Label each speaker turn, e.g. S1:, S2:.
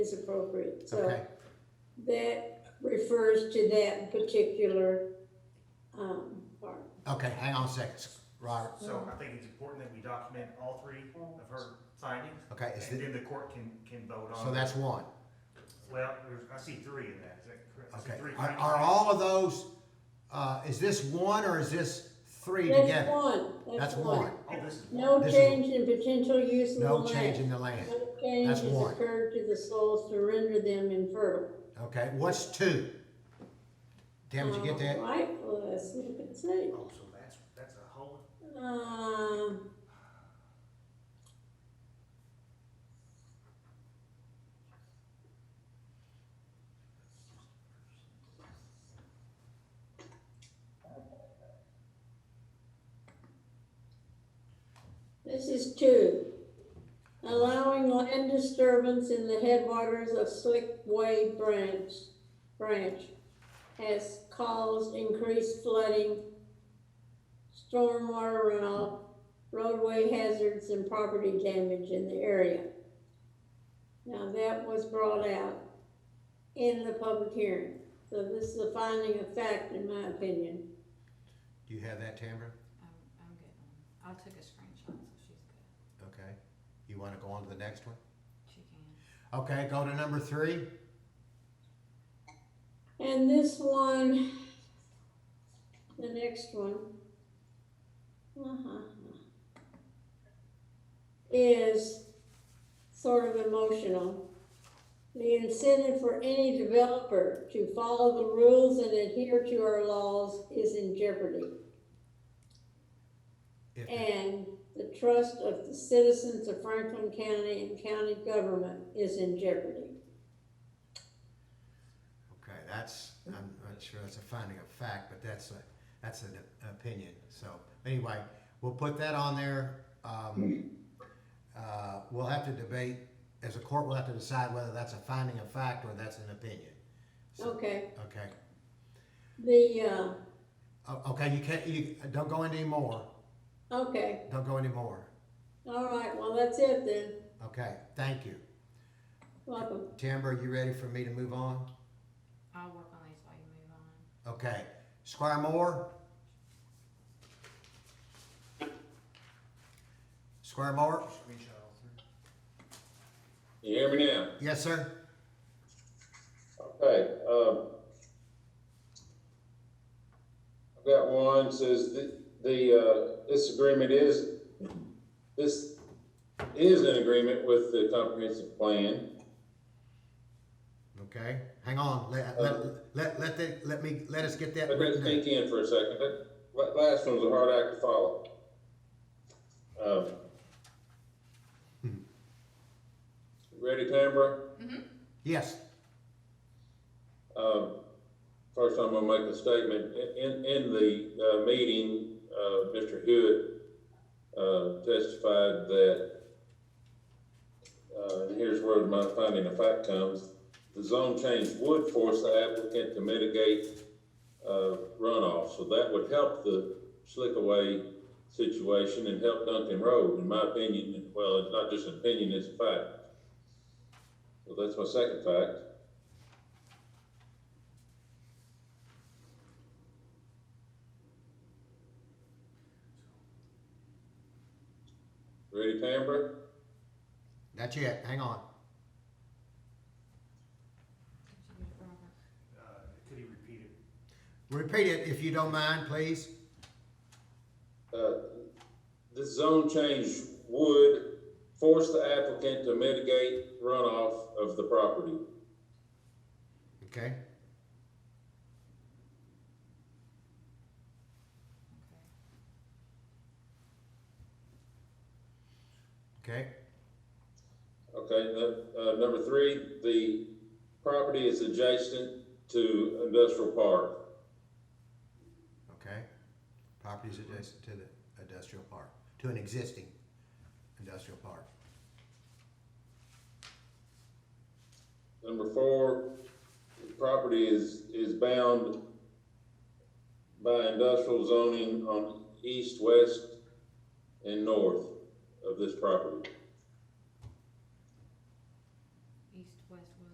S1: is appropriate. So
S2: Okay,
S1: that refers to that particular, um, part.
S2: okay, hang on a second, Robert,
S3: So I think it's important that we document all three of her findings,
S2: okay, is
S3: and
S2: the,
S3: then the court can, can vote on.
S2: so that's one,
S3: Well, there's, I see three in that, is that correct? I see
S2: okay.
S3: three
S2: Are,
S3: findings.
S2: are all of those, uh, is this one or is this three
S1: That's
S2: together?
S1: one,
S2: That's
S1: that's one.
S2: one,
S3: Oh, this is one.
S1: No
S2: This is-
S1: change in potential use of the
S2: no change
S1: land.
S2: in the land,
S1: No
S2: That's
S1: change has
S2: one.
S1: occurred to the soils to render them infertile.
S2: okay, what's two? Damn, did you get that?
S1: Um, Right, well, let's look and see.
S3: Oh, so that's, that's a whole,
S1: Um, This is two. Allowing land disturbance in the headwaters of Slickway Branch, Branch has caused increased flooding, stormwater runoff, roadway hazards, and property damage in the area. Now, that was brought out in the public hearing, so this is a finding of fact, in my opinion.
S2: Do you have that, Tamara?
S4: I'm, I'm good on, I took a screenshot, so she's good,
S2: Okay, you wanna go on to the next one?
S4: she can.
S2: Okay, go to number three,
S1: And this one, the next one, uh-huh, is sort of emotional. The incentive for any developer to follow the rules and adhere to our laws is in jeopardy.
S2: if, the-
S1: And the trust of the citizens of Franklin County and county government is in jeopardy.
S2: okay, that's, I'm not sure that's a finding of fact, but that's a, that's an opinion, so, anyway, we'll put that on there, um, uh, we'll have to debate, as a court, we'll have to decide whether that's a finding of fact or that's an opinion. So,
S1: Okay,
S2: okay,
S1: the, uh,
S2: O- okay, you can't, you, don't go any more,
S1: okay,
S2: don't go any more,
S1: all right, well, that's it then,
S2: okay, thank you.
S1: welcome.
S2: Timber, you ready for me to move on?
S4: I'll work on these while you move on.
S2: Okay, Squire Moore? Squire Moore?
S3: screenshot all three.
S5: You hear me now?
S2: Yes, sir?
S5: Okay, um, I've got one, says the, the, uh, this agreement is, this is an agreement with the comprehensive plan.
S2: Okay, hang on, let, let, let, let, the- let me, Uh, let us get that
S5: But let's
S2: written down.
S5: think in for a second, that, that last one's a hard act to follow. Um, Ready, Tamara?
S2: Yes,
S5: Um, First, I'm gonna make a statement. In- In, in the uh, meeting, uh, Mr. Hewitt uh, testified that, uh, and here's where my finding of fact comes, the zone change would force the applicant to mitigate uh, runoff. So that would help the slickaway situation and help Duncan Road, in my opinion. Well, it's not just an opinion, it's a fact. So that's my second fact. Ready, Tamara?
S2: that's it, hang on.
S4: Did you get it, Robert?
S3: Uh, could he repeat it?
S2: Repeat it if you don't mind, please.
S5: Uh, This zone change would force the applicant to mitigate runoff of the property.
S2: Okay,
S4: Okay.
S2: okay,
S5: Okay, nu- uh, number three, the property is adjacent to industrial park.
S2: okay. Properties adjacent to the industrial park, to an existing industrial park.
S5: Number four, the property is, is bound by industrial zoning on east, west, and north of this property.